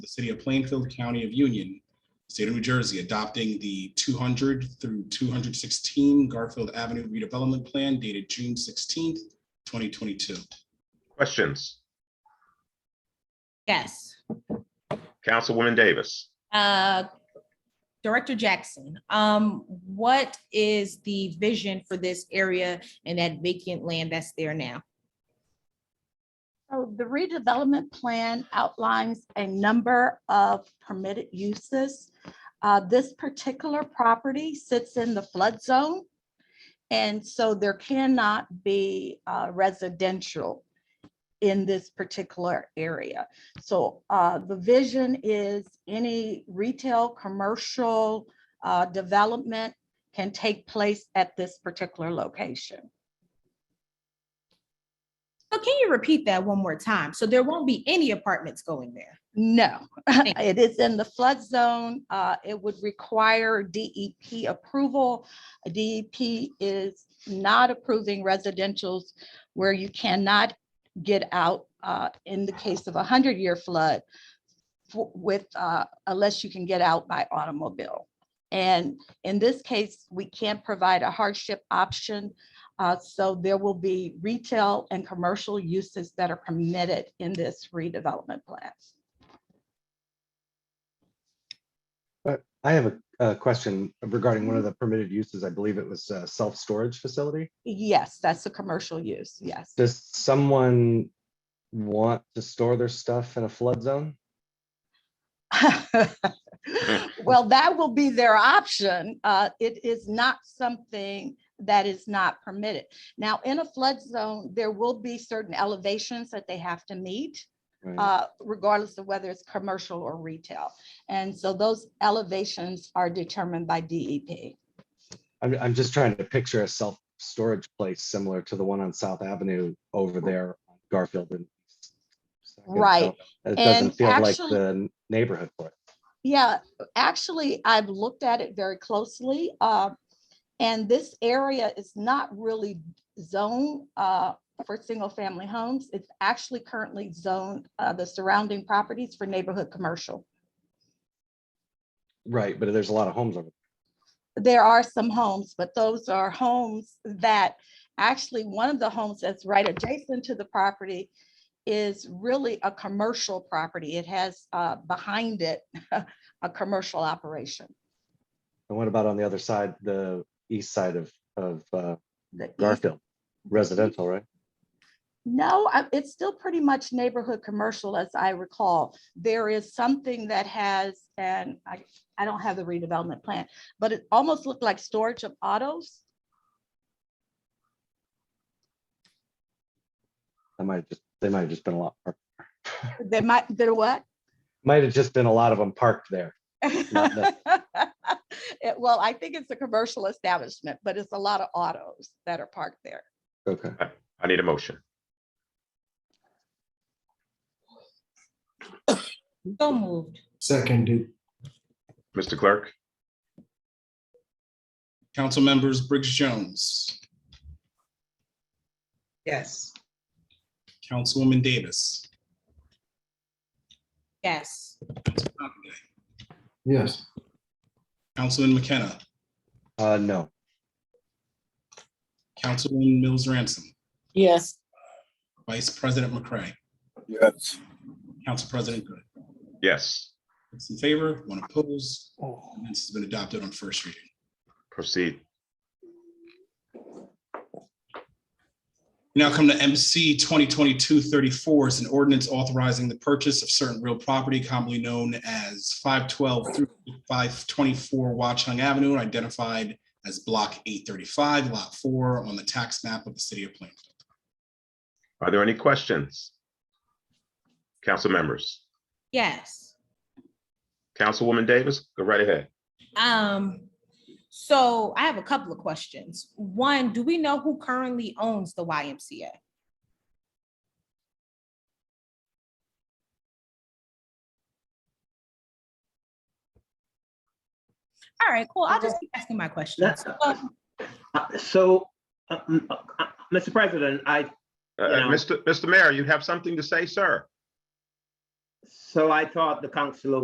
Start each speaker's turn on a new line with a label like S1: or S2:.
S1: the city of Plainfield, county of Union, state of New Jersey, adopting the two hundred through two hundred sixteen Garfield Avenue redevelopment plan dated June sixteenth, twenty twenty-two.
S2: Questions?
S3: Yes.
S2: Councilwoman Davis.
S3: Uh, Director Jackson, um, what is the vision for this area and that vacant land that's there now?
S4: So the redevelopment plan outlines a number of permitted uses. Uh, This particular property sits in the flood zone. And so there cannot be uh, residential in this particular area. So uh, the vision is any retail, commercial uh, development can take place at this particular location.
S3: So can you repeat that one more time? So there won't be any apartments going there.
S4: No,
S3: Thank
S4: it is in the flood zone. Uh, It would require DEP approval. DEP is not approving residentials where you cannot get out uh, in the case of a hundred-year flood fo- with, uh, unless you can get out by automobile. And in this case, we can't provide a hardship option. uh, So there will be retail and commercial uses that are permitted in this redevelopment plan.
S5: I have a, a question regarding one of the permitted uses. I believe it was a self-storage facility.
S4: Yes, that's a commercial use, yes.
S5: Does someone want to store their stuff in a flood zone?
S4: Well, that will be their option. Uh, It is not something that is not permitted. Now, in a flood zone, there will be certain elevations that they have to meet,
S5: Right.
S4: uh, regardless of whether it's commercial or retail. And so those elevations are determined by E DEP.
S5: I'm, I'm just trying to picture a self-storage place similar to the one on South Avenue over there, on Garfield and. Second, so
S4: Right.
S5: It doesn't
S4: And
S5: feel like
S4: actually-
S5: the neighborhood for it.
S4: Yeah, actually, I've looked at it very closely. uh, And this area is not really zoned uh, for single-family homes. It's actually currently zoned, uh, the surrounding properties for neighborhood commercial.
S5: Right, but there's a lot of homes over.
S4: There are some homes, but those are homes that, actually, one of the homes that's right adjacent to the property is really a commercial property. It has uh, behind it a commercial operation.
S5: And what about on the other side, the east side of, of uh,
S4: the east
S5: Garfield? Residential, right?
S4: No, I- it's still pretty much neighborhood commercial, as I recall. There is something that has, and I, I don't have the redevelopment plan, but it almost looked like storage of autos.
S5: I might just, they might have just been a lot, more-
S4: There might, there what?
S5: might have just been a lot of them parked there. Not
S4: It- Well, I think it's a commercial establishment, but it's a lot of autos that are parked there.
S5: Okay.
S2: I need a motion.
S3: So moved.
S6: Seconded,
S2: Mr. Clerk?
S1: Council members Briggs Jones,
S7: yes,
S1: Councilwoman Davis,
S3: Yes.
S6: yes,
S1: Councilman McKenna,
S5: Uh, no,
S1: Councilwoman Mills Ransom,
S8: yes,
S1: Vice President McCray,
S9: yes,
S1: Council President Good.
S2: Yes.
S1: Six in favor, one opposed. Ordinance has been adopted on first reading.
S2: Proceed.
S1: We Now come to MC 2022-34 is an ordinance authorizing the purchase of certain real property commonly known as 512 through 524 Watchung Avenue, identified as Block 835, Lot 4, on the tax map of the city of Plainfield.
S2: Are there any questions? Council members?
S3: Yes.
S2: Councilwoman Davis, go right ahead.
S3: Um, so I have a couple of questions. One, do we know who currently owns the YMCA? All right, cool. I'll just keep asking my questions. Um,
S10: Uh, So, uh, m- uh, Mr. President, I,
S2: Uh, uh,
S10: Yeah.
S2: Mr. Mr. Mayor, you have something to say, sir?
S10: So I thought the councillor